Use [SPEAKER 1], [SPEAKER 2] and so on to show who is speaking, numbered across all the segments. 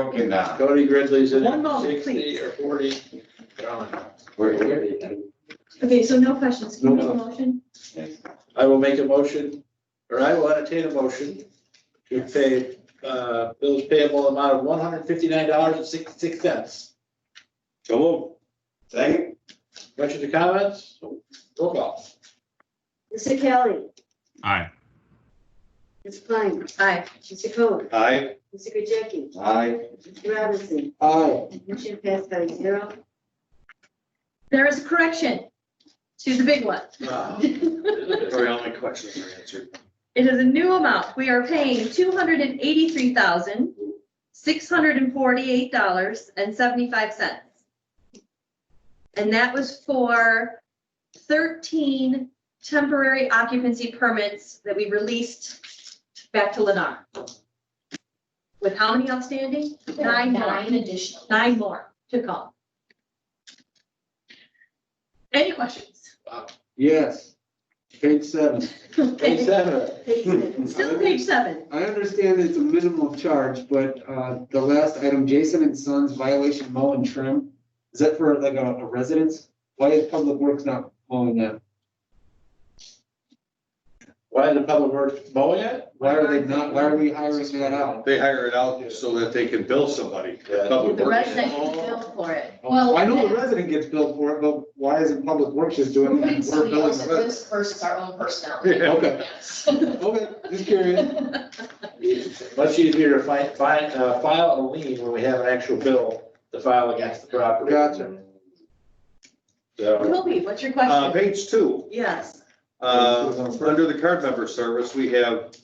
[SPEAKER 1] Okay, now,
[SPEAKER 2] Cody Gridley's in
[SPEAKER 3] One
[SPEAKER 2] at
[SPEAKER 3] moment,
[SPEAKER 2] sixty
[SPEAKER 3] please.
[SPEAKER 2] or forty. Gone.
[SPEAKER 1] we're, we're,
[SPEAKER 4] Okay, so no questions, can you make
[SPEAKER 2] No.
[SPEAKER 4] a motion?
[SPEAKER 2] I will make a motion, or I will entertain a motion to pay, uh, bills payable amount of one hundred fifty-nine dollars and sixty-six cents.
[SPEAKER 1] second,
[SPEAKER 2] Questions or comments? Roll call.
[SPEAKER 5] Mr. Kelly,
[SPEAKER 6] Aye.
[SPEAKER 5] Ms. Klein,
[SPEAKER 4] Aye.
[SPEAKER 5] Mr. Coe,
[SPEAKER 1] aye,
[SPEAKER 5] Mr. Gajeki,
[SPEAKER 1] aye,
[SPEAKER 5] Mr. Robinson,
[SPEAKER 2] Aye.
[SPEAKER 4] Mm-hmm.
[SPEAKER 5] motion passed by zero.
[SPEAKER 4] There is a correction to the big one.
[SPEAKER 7] Sorry, all my questions are answered.
[SPEAKER 4] It is a new amount. We are paying two hundred and eighty-three thousand, six hundred and forty-eight dollars and seventy-five cents. And that was for thirteen temporary occupancy permits that we released back to Lennar. With how many outstanding? Nine more,
[SPEAKER 8] Nine additional.
[SPEAKER 4] nine more to come. Any questions?
[SPEAKER 9] Yes, page seven.
[SPEAKER 2] Page seven.
[SPEAKER 5] Page seven.
[SPEAKER 4] Still page seven.
[SPEAKER 9] I understand it's a minimal charge, but uh, the last item, Jason and Sons violation mow and trim, is that for like a a residence? Why is Public Works not mowing that?
[SPEAKER 2] Why is the public works mowing it?
[SPEAKER 9] Why are they not, why are we hiring that out?
[SPEAKER 1] they hire it out so that they can bill somebody,
[SPEAKER 2] Yeah.
[SPEAKER 1] public
[SPEAKER 8] The
[SPEAKER 1] works.
[SPEAKER 8] resident can bill for it. Well,
[SPEAKER 9] I know the resident gets billed for it, but why isn't Public Works just doing it?
[SPEAKER 8] Moving
[SPEAKER 9] We're
[SPEAKER 8] somebody
[SPEAKER 9] billing
[SPEAKER 8] else's
[SPEAKER 9] the resident.
[SPEAKER 8] list versus our own personnel.
[SPEAKER 1] Yeah,
[SPEAKER 9] okay.
[SPEAKER 8] Yes.
[SPEAKER 9] Okay, just curious.
[SPEAKER 2] Much easier to find, find, uh, file a lien when we have an actual bill to file against the property.
[SPEAKER 9] Gotcha.
[SPEAKER 2] So,
[SPEAKER 4] Toby, what's your
[SPEAKER 1] Uh,
[SPEAKER 4] question?
[SPEAKER 1] page two,
[SPEAKER 4] Yes.
[SPEAKER 1] uh, under the card member service, we have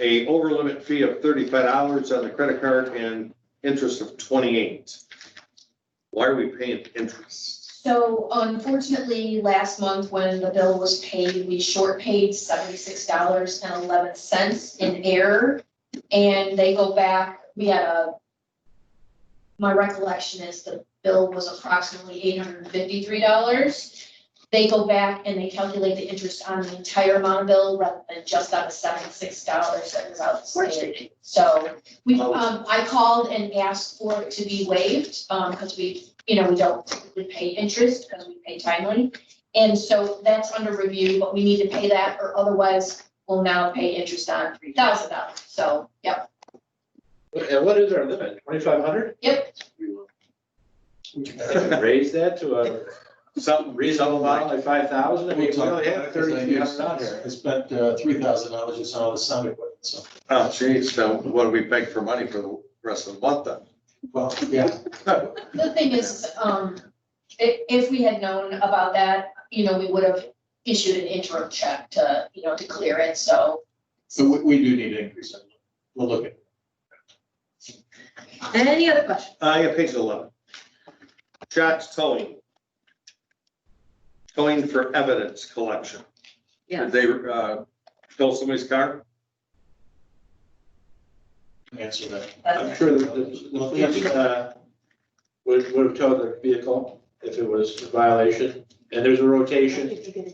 [SPEAKER 1] a over limit fee of thirty-five dollars on the credit card and interest of twenty-eight. Why are we paying interest?
[SPEAKER 8] So unfortunately, last month when the bill was paid, we short paid seventy-six dollars and eleven cents in error. And they go back, we had a, my recollection is the bill was approximately eight hundred and fifty-three dollars. They go back and they calculate the interest on the entire amount of bill rather than just on the seventy-six dollars that was outstanding. So we, um, I called and asked for it to be waived, um, because we, you know, we don't typically pay interest because we pay timely. And so that's under review, but we need to pay that or otherwise we'll now pay interest on three thousand dollars. So, yep,
[SPEAKER 2] and what is our limit? Twenty-five hundred?
[SPEAKER 8] yep,
[SPEAKER 2] Raise that to a
[SPEAKER 1] Something
[SPEAKER 2] reasonable
[SPEAKER 1] reasonable
[SPEAKER 2] amount, like five thousand, I mean, we
[SPEAKER 7] We'll talk
[SPEAKER 2] only
[SPEAKER 7] about
[SPEAKER 2] have
[SPEAKER 7] it, 'cause I
[SPEAKER 2] thirty-three
[SPEAKER 7] used-
[SPEAKER 2] hundred out here.
[SPEAKER 7] I spent uh, three thousand dollars just on all the sound equipment, so,
[SPEAKER 1] Oh, geez, so what do we beg for money for the rest of the month then?
[SPEAKER 7] well, yeah,
[SPEAKER 8] the thing is, um, i- if we had known about that, you know, we would have issued an interim check to, you know, to clear it, so.
[SPEAKER 7] so we, we do need to increase it. We'll look at it.
[SPEAKER 4] Any other questions?
[SPEAKER 1] I got Uh, page eleven. Shots towing. Towing for evidence collection.
[SPEAKER 4] Yeah.
[SPEAKER 1] Did they, uh, tow somebody's car?
[SPEAKER 7] Answer that.
[SPEAKER 8] uh,
[SPEAKER 2] I'm sure that the, the police, uh, would, would have towed the vehicle if it was a violation, and there's a rotation,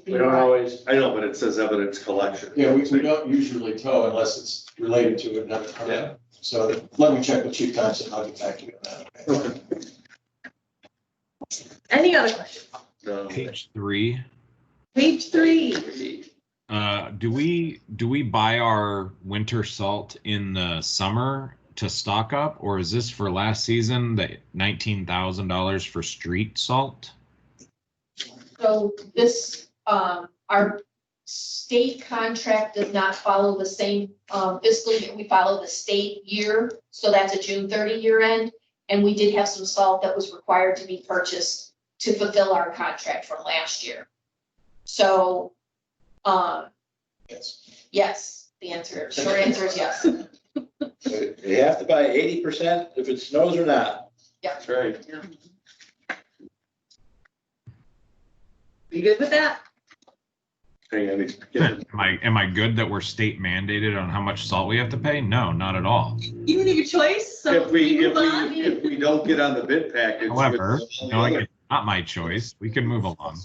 [SPEAKER 2] we don't always,
[SPEAKER 1] I know, but it says evidence collection.
[SPEAKER 7] Yeah, we, we don't usually tow unless it's related to another
[SPEAKER 1] Yeah.
[SPEAKER 7] permit. So let me check with Chief Thompson, I'll get back to you on that. okay?
[SPEAKER 4] Any other questions?
[SPEAKER 1] No.
[SPEAKER 6] Page three.
[SPEAKER 4] Page three.
[SPEAKER 6] Uh, do we, do we buy our winter salt in the summer to stock up? Or is this for last season, the nineteen thousand dollars for street salt?
[SPEAKER 8] So this, um, our state contract does not follow the same, um, fiscal year. We follow the state year, so that's a June thirty year end. And we did have some salt that was required to be purchased to fulfill our contract from last year. So, um,
[SPEAKER 7] Yes.
[SPEAKER 8] yes, the answer, short answer is yes.
[SPEAKER 2] you have to buy eighty percent if it snows or not.
[SPEAKER 1] That's right.
[SPEAKER 4] You good with that?
[SPEAKER 1] Hang on, he's
[SPEAKER 6] Am
[SPEAKER 1] getting-
[SPEAKER 6] I, am I good that we're state mandated on how much salt we have to pay? No, not at all.
[SPEAKER 4] You can make your choice, so
[SPEAKER 1] If we,
[SPEAKER 4] we
[SPEAKER 1] if
[SPEAKER 4] move on.
[SPEAKER 1] we, if we don't get on the bid package. with
[SPEAKER 6] However,
[SPEAKER 1] all
[SPEAKER 6] you
[SPEAKER 1] the
[SPEAKER 6] know, like,
[SPEAKER 1] other-
[SPEAKER 6] it's not my choice. We can move along.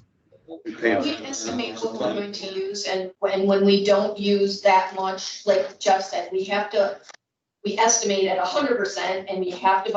[SPEAKER 1] we pay-
[SPEAKER 8] We estimate what we're going to use and when, when we don't use that much, like Jeff said, we have to, we estimate at hundred percent and we have to buy